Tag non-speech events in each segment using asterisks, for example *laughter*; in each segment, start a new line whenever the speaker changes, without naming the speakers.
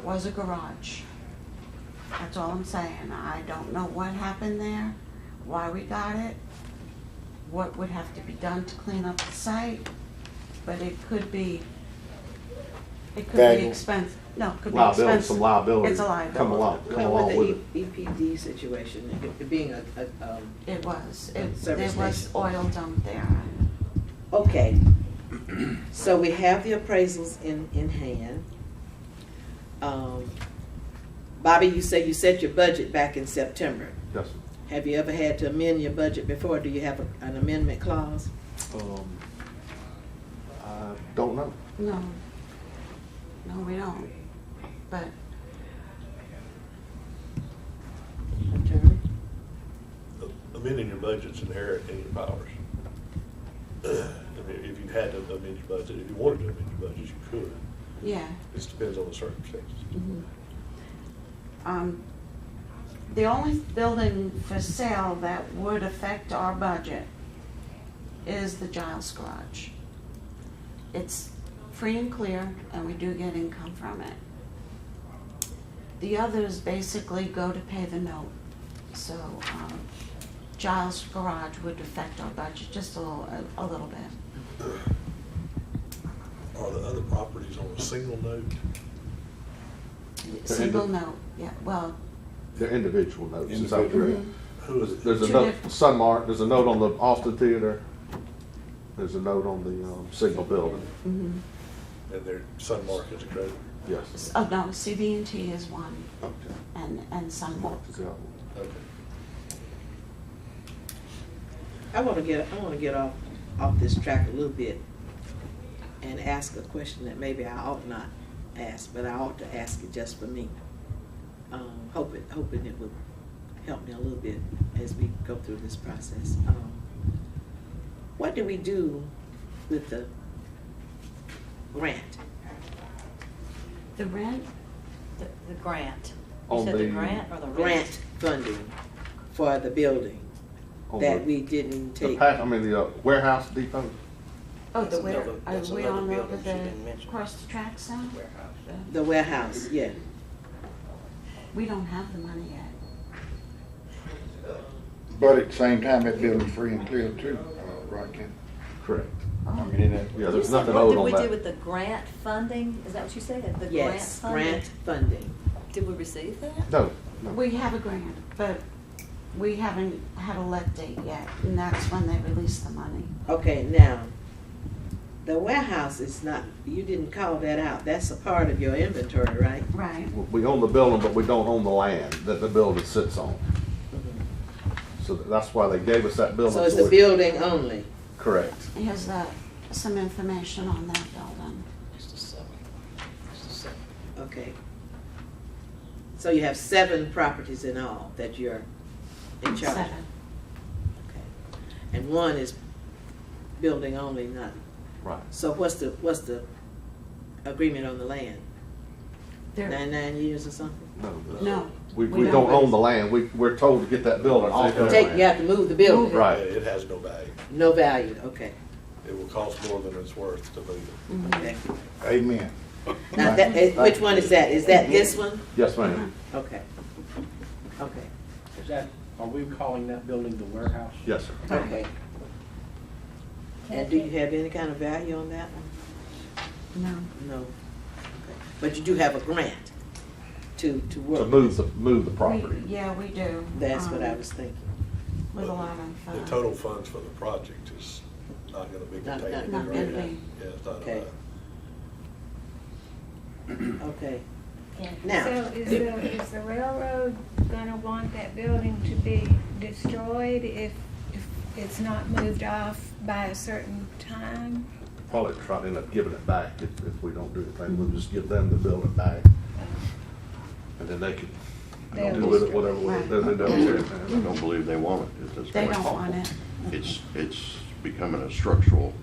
was a garage. That's all I'm saying. I don't know what happened there, why we got it, what would have to be done to clean up the site, but it could be, it could be
Valuable.
expensive. No, it could be
Liability,
expensive.
some liability
It's a liability.
Come along, come
Well,
along with it.
With the E- EPD situation, it- it being a, a, um,
It was. It,
Service
there was
station.
oil dumped there.
okay. *clears throat* So we have the appraisals in, in hand. Um, Bobby, you say you set your budget back in September.
Yes.
Have you ever had to amend your budget before? Do you have a- an amendment clause?
Um, I don't know.
No. No, we don't. But
Attorney?
amending your budget's inherent in your powers. *clears throat* I mean, if you had to amend your budget, if you wanted to amend your budget, you could.
yeah.
It just depends on the circumstances.
Mm-hmm. Um, the only building for sale that would affect our budget is the Giles Garage. It's free and clear, and we do get income from it. The others basically go to pay the note, so, um, Giles Garage would affect our budget just a little, a, a little bit.
Are the other properties on a single note?
Single note, yeah, well,
They're individual notes, is that
Individual.
correct?
mhm,
Who is it?
There's a
Two
note,
different-
Sunmark, there's a note on the Austin Theater. There's a note on the, um, Signal Building,
mhm.
And their Sun Market's a creditor.
yes.
S- Oh, no, CB&T is one,
Okay.
and, and Sunmark.
Mark is the other one.
Okay.
I want to get, I want to get off, off this track a little bit and ask a question that maybe I ought not ask, but I ought to ask it just for me. Um, hoping, hoping it would help me a little bit as we go through this process. Um, What do we do with the grant?
The rent, the, the grant. You
On
said the
the-
grant or the rent?
Grant funding for the building
On
that
the-
we didn't
The
take?
pack, I mean, the uh, warehouse depot,
Oh, the
That's
where,
another-
are
that's
we
another
on over
building she
the,
didn't mention.
across the tracks now?
warehouse.
The-
The warehouse, yeah.
We don't have the money yet.
But at the same time, that building's free and clear too, uh, right, Ken?
correct.
I mean, in that,
Yeah,
You
there's
said,
nothing
what
owed on
Did we do
that.
with the grant funding? Is that what you said? The grant
Yes,
funding?
grant funding.
Did we receive that?
No, no.
We have a grant, but we haven't had a let date yet, and that's when they release the money.
Okay, now, the warehouse is not, you didn't call that out, that's a part of your inventory, right?
Right,
We own the building, but we don't own the land that the building sits on. So that's why they gave us that Mm-hmm. building.
So it's the
we-
building only,
Correct.
here's the, uh, some information on that building.
It's the seven. It's the seven.
okay. So you have seven properties in all that you're in charge of?
Seven.
Okay. And one is building only, not,
Right.
so what's the, what's the agreement on the land?
There,
Nine, nine years or something?
No.
no.
We,
we
we
don't.
don't own the land. We, we're told to get that building off their
Take, you
land.
have to move the building?
Right.
Yeah, It has no value.
No value, okay,
It will cost more than it's worth to move it.
Mm-hmm.
okay.
amen.
Now, that, eh, which one is that, is that this one?
Yes, ma'am.
Okay. Okay.
Is that, are we calling that building the warehouse?
Yes, sir.
Okay. And do you have any kind of value on that one?
No,
No. Okay. But you do have a grant to, to work.
To move the, move the
we,
property.
yeah, we do.
That's what I
um,
was thinking.
With a lot of. uh,
The total funds for the project is not gonna be
Not-
contained in the
not-
not gonna
grant.
be.
Yeah, it's not
Okay.
enough.
Okay.
So
Now,
is the, is the railroad gonna want that building to be destroyed if, if it's not moved off by a certain time?
Probably try to end up giving it back if, if we don't do anything. We'll just give them the building back. And then they can
They'll
do with it
just-
whatever, way-
Right.
then they
I
don't.
don't believe they want it at this point.
They don't want it.
It's, it's becoming a structural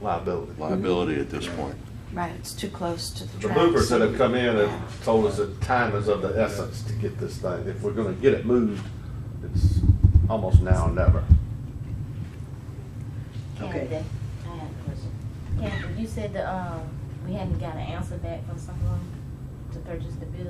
Liability.
liability at this point.
Right, it's too close to the
The
tracks.
movers that have come in have told us that time is of the essence to get this thing. If we're gonna get it moved, it's almost now or never.
Okay.
Candace, I have a question. Candace, you said the, um, we hadn't got an answer back from someone to purchase the building.